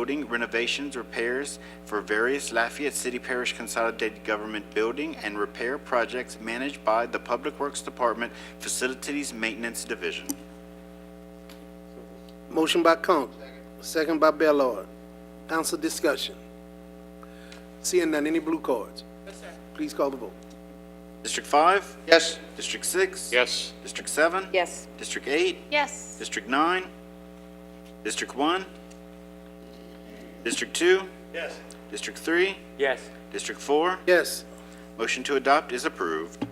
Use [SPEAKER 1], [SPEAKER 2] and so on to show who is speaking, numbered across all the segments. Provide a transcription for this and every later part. [SPEAKER 1] building renovations, repairs for various Lafayette City Parish Consolidated Government building and repair projects managed by the Public Works Department Facilities Maintenance Division.
[SPEAKER 2] Motion by Combs, second by Bellard. Council discussion. Seeing none, any blue cards? Yes, sir. Please call the vote.
[SPEAKER 1] District 5?
[SPEAKER 3] Yes.
[SPEAKER 1] District 6?
[SPEAKER 3] Yes.
[SPEAKER 1] District 7?
[SPEAKER 4] Yes.
[SPEAKER 1] District 8?
[SPEAKER 4] Yes.
[SPEAKER 1] District 9? District 1? District 2? Yes. District 3?
[SPEAKER 3] Yes.
[SPEAKER 1] District 4?
[SPEAKER 2] Yes.
[SPEAKER 1] Motion to adopt is approved.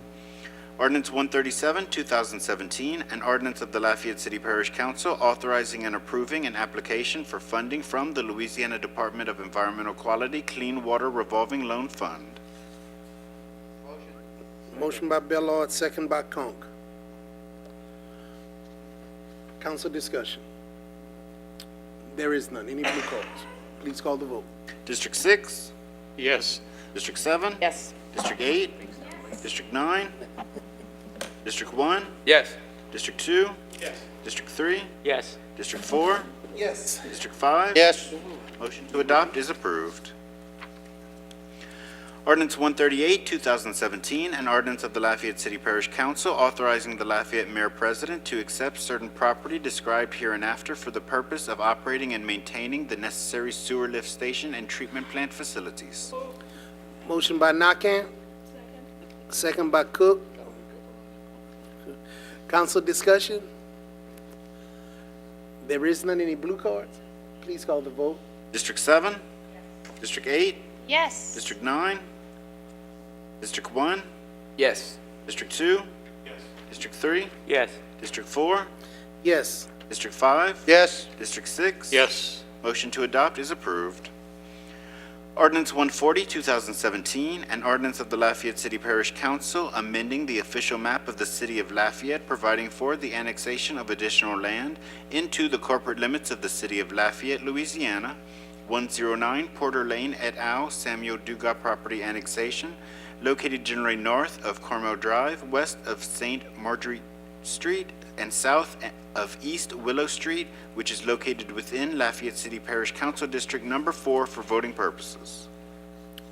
[SPEAKER 1] Ordinance 137, 2017, an ordinance of the Lafayette City Parish Council authorizing and approving an application for funding from the Louisiana Department of Environmental Quality Clean Water Revolving Loan Fund.
[SPEAKER 2] Motion by Bellard, second by Conk. Council discussion. There is none. Any blue cards? Please call the vote.
[SPEAKER 1] District 6?
[SPEAKER 3] Yes.
[SPEAKER 1] District 7?
[SPEAKER 4] Yes.
[SPEAKER 1] District 8? District 9? District 1?
[SPEAKER 3] Yes.
[SPEAKER 1] District 2? Yes. District 3?
[SPEAKER 3] Yes.
[SPEAKER 1] District 4?
[SPEAKER 2] Yes.
[SPEAKER 1] District 5?
[SPEAKER 3] Yes.
[SPEAKER 1] Motion to adopt is approved. Ordinance 138, 2017, an ordinance of the Lafayette City Parish Council authorizing the Lafayette Mayor President to accept certain property described hereinafter for the purpose of operating and maintaining the necessary sewer lift station and treatment plant facilities.
[SPEAKER 2] Motion by Nakam, second by Cook. Council discussion. There is none. Any blue cards? Please call the vote.
[SPEAKER 1] District 7? District 8?
[SPEAKER 4] Yes.
[SPEAKER 1] District 9? District 1?
[SPEAKER 3] Yes.
[SPEAKER 1] District 2? Yes. District 3?
[SPEAKER 3] Yes.
[SPEAKER 1] District 4?
[SPEAKER 2] Yes.
[SPEAKER 1] District 5?
[SPEAKER 3] Yes.
[SPEAKER 1] District 6?
[SPEAKER 3] Yes.
[SPEAKER 1] Motion to adopt is approved. Ordinance 140, 2017, an ordinance of the Lafayette City Parish Council amending the official map of the city of Lafayette, providing for the annexation of additional land into the corporate limits of the city of Lafayette, Louisiana, 109 Porter Lane et al., Samuel Dugas property annexation, located generally north of Cornell Drive, west of St. Marjorie Street and south of East Willow Street, which is located within Lafayette City Parish Council District Number 4 for voting purposes.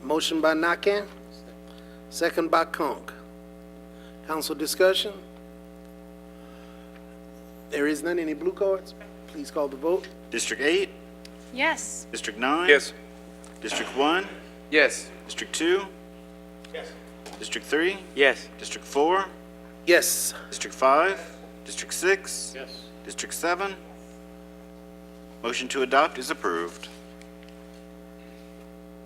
[SPEAKER 2] Motion by Nakam, second by Conk. Council discussion? There is none. Any blue cards? Please call the vote.
[SPEAKER 1] District 8,
[SPEAKER 4] Yes.
[SPEAKER 1] District 9? District 1,
[SPEAKER 3] Yes.
[SPEAKER 1] District 2? Yes. District 3,
[SPEAKER 3] Yes.
[SPEAKER 1] District 4,
[SPEAKER 2] Yes.
[SPEAKER 1] District 5, District 6?
[SPEAKER 3] Yes.
[SPEAKER 1] District 7? Motion to adopt is approved.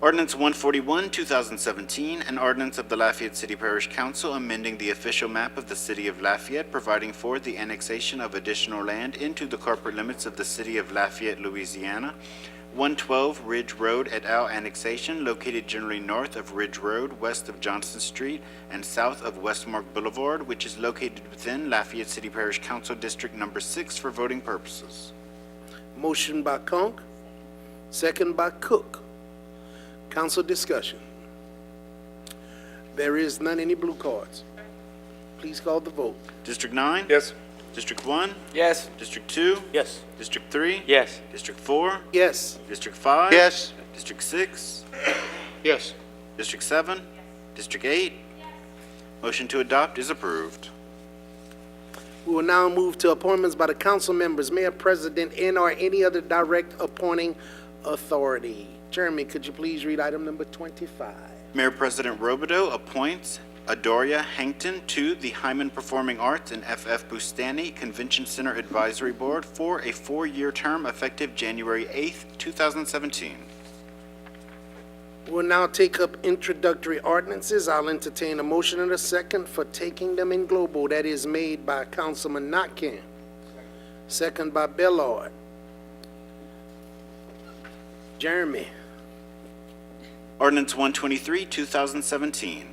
[SPEAKER 1] Ordinance 141, 2017, an ordinance of the Lafayette City Parish Council amending the official map of the city of Lafayette, providing for the annexation of additional land into the corporate limits of the city of Lafayette, Louisiana, 112 Ridge Road et al. annexation, located generally north of Ridge Road, west of Johnson Street, and south of Westmark Boulevard, which is located within Lafayette City Parish Council District Number 6 for voting purposes.
[SPEAKER 2] Motion by Conk, second by Cook. Council discussion? There is none. Any blue cards? Please call the vote.
[SPEAKER 1] District 9?
[SPEAKER 3] Yes.
[SPEAKER 1] District 1?
[SPEAKER 3] Yes.
[SPEAKER 1] District 2?
[SPEAKER 3] Yes.
[SPEAKER 1] District 3?
[SPEAKER 3] Yes.
[SPEAKER 1] District 4?
[SPEAKER 2] Yes.
[SPEAKER 1] District 5?
[SPEAKER 3] Yes.
[SPEAKER 1] District 6?
[SPEAKER 3] Yes.
[SPEAKER 1] District 7? District 8? Motion to adopt is approved.
[SPEAKER 2] We will now move to appointments by the council members, mayor, president, and/or any other direct appointing authority. Jeremy, could you please read item number 25?
[SPEAKER 1] Mayor President Robideau appoints Adoria Hankton to the Hyman Performing Arts and F.F. Bustani Convention Center Advisory Board for a four-year term effective January 8th, 2017.
[SPEAKER 2] We will now take up introductory ordinances. I'll entertain a motion and a second for taking them in global. That is made by Councilman Notkin, second by Bellard. Jeremy,
[SPEAKER 1] Ordinance 123, 2017,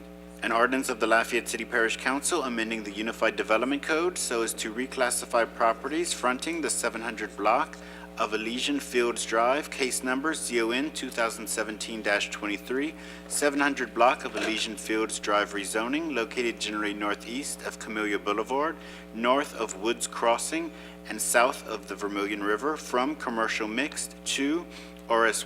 [SPEAKER 1] an ordinance of the Lafayette City Parish Council amending the Unified Development Code so as to reclassify properties fronting the 700 block of Elysian Fields Drive, case number ZON 2017-23, 700 block of Elysian Fields Drive rezoning located generally northeast of Camellia Boulevard, north of Woods Crossing, and south of the Vermilion River from commercial mixed to RS